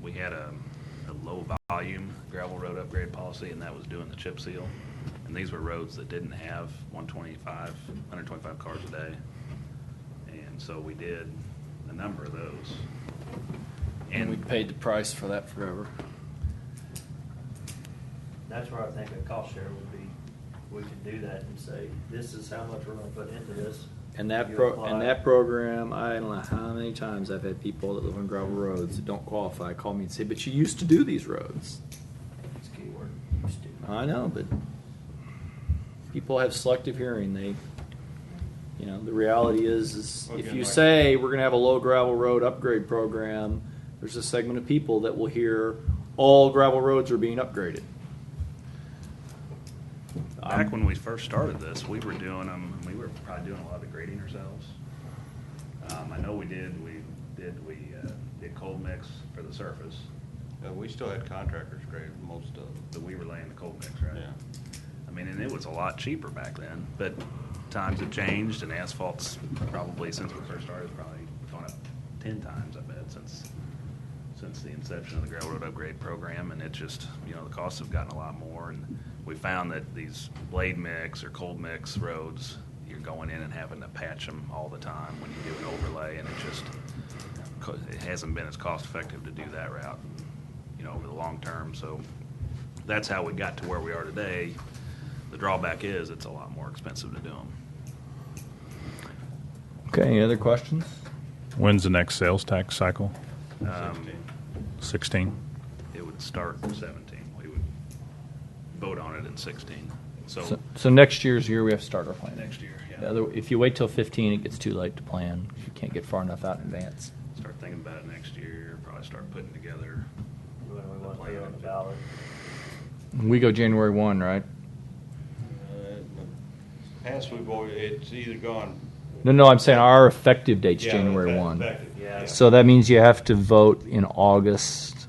we had a, a low volume gravel road upgrade policy, and that was doing the chip seal. And these were roads that didn't have 125, 125 cars a day. And so we did a number of those. And we paid the price for that forever. That's where I think a cost share would be, we could do that and say, this is how much we're gonna put into this. And that You pro, apply. and that program, I don't know how many times I've had people that live on gravel roads that don't qualify call me and say, but you used to do these roads. It's a keyword, used to. I know, but people have selective hearing. They, you know, the reality is, is if Again, you like- say we're going to have a low gravel road upgrade program, there's a segment of people that will hear all gravel roads are being upgraded. um, Back when we first started this, we were doing them, we were probably doing a lot of the grading ourselves. Um, I know we did, we did, we, uh, did cold mix for the surface, Uh, we still had contractors grade most of them. but we were laying the cold mix, right? Yeah. I mean, and it was a lot cheaper back then, but times have changed and asphalt's probably, since we first started, probably gone up ten times, I bet, since, since the inception of the railroad upgrade program, and it just, you know, the costs have gotten a lot more, and we found that these blade mix or cold mix roads, you're going in and having to patch them all the time when you do an overlay, and it just, co- it hasn't been as cost effective to do that route, you know, over the long term, so that's how we got to where we are today. The drawback is it's a lot more expensive to do them. Okay, any other questions? When's the next sales tax cycle? Uh, Um, 16? it would start in 17. We would vote on it in 16. So So, so next year's year, we have to start our planning. next year, The yeah, other- If you wait till 15, it gets too late to plan. You can't get far enough out in advance. start thinking about it next year, probably start putting together. When we want to be on the ballot. We go January 1, right? Uh, Past we've always, it's either gone. No, no, I'm saying our effective date's Yeah, January effective, 1. effective, Yeah. yeah. So that means you have to vote in August.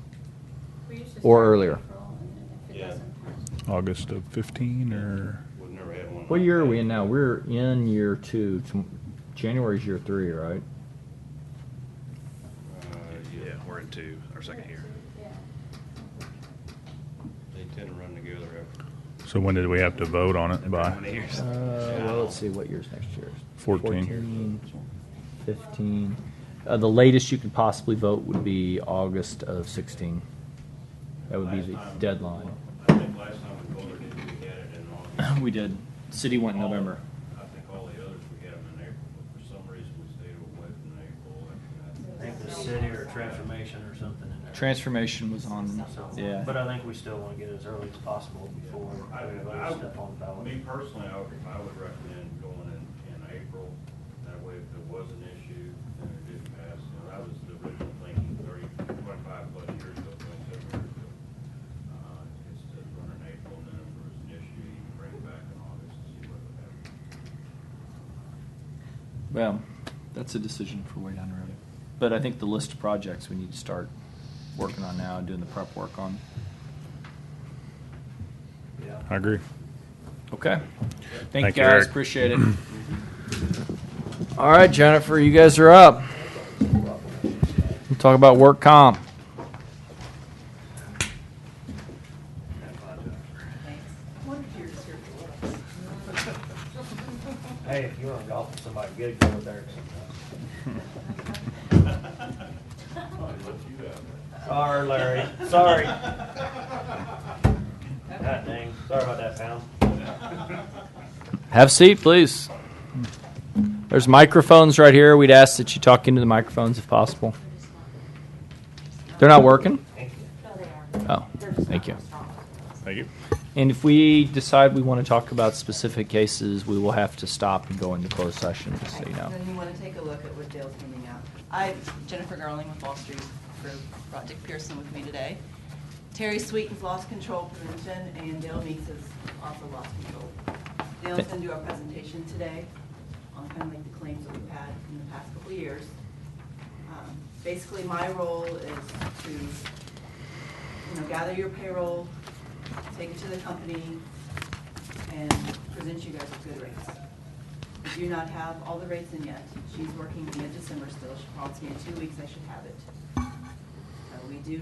We used to Or start in earlier. April, and if it Yeah. doesn't pass- August of 15 or? We've never had one. What like year are that. we in now? We're in year two. Tom- January's year three, right? Uh, Yeah, we're in two, our second year. Yeah. They tend to run together after. So when did we have to vote on it How many by? years? Uh, well, let's see, what year's next year? 14. 14, 15. Uh, the latest you could possibly vote would be August of 16. That would be the Last time- deadline. I think last time we voted it, we had it in August. We did. City went in November. I think all the others, we had them in April, but for some reason, we stayed away from April. after that. I think the city or transformation or something in there. Transformation was on, So, yeah. But I think we still wanna get it as early as possible before I- we I- vote step on the Me ballot. personally, I would, I would recommend going in, in April. That way, if there was an issue, then it didn't pass. You know, that was the original thinking thirty, twenty-five plus years ago, twenty-seven years ago. Uh, It's to run in April, and then if there was an issue, you can bring it back in August and see what would happen. Well, that's a decision for way down the road. But I think the list of projects we need to start working on now, and doing the prep work on. Yeah. I agree. Okay. Thank Thank you you, guys, Eric. appreciate it. All right, Jennifer, you guys are up. Talk about work comp. One of yours here for us. Hey, if you wanna golf with somebody, get a go with Eric sometime. Sorry, Larry, sorry. God dang, sorry about that, pal. Have a seat, please. There's microphones right here. We'd ask that you talk into the microphones if possible. They're not working? Thank you. No, they are. Oh, They're just thank not you. strong. Thank you. And if we decide we want to talk about specific cases, we will have to stop and go into closed session, just so you know. Then you want to take a look at what Dale's handing out. I, Jennifer Garling with Wall Street Group, brought Dick Pearson with me today. Terry Sweet has lost control prevention, and Dale Meeks has also lost control. Dale's going to do our presentation today on kind of like the claims that we've had in the past couple of years. Um, Basically, my role is to, you know, gather your payroll, take it to the company, and present you guys with good rates. I do not have all the rates in yet. She's working in December still. She promised me in two weeks I should have it. Uh, We do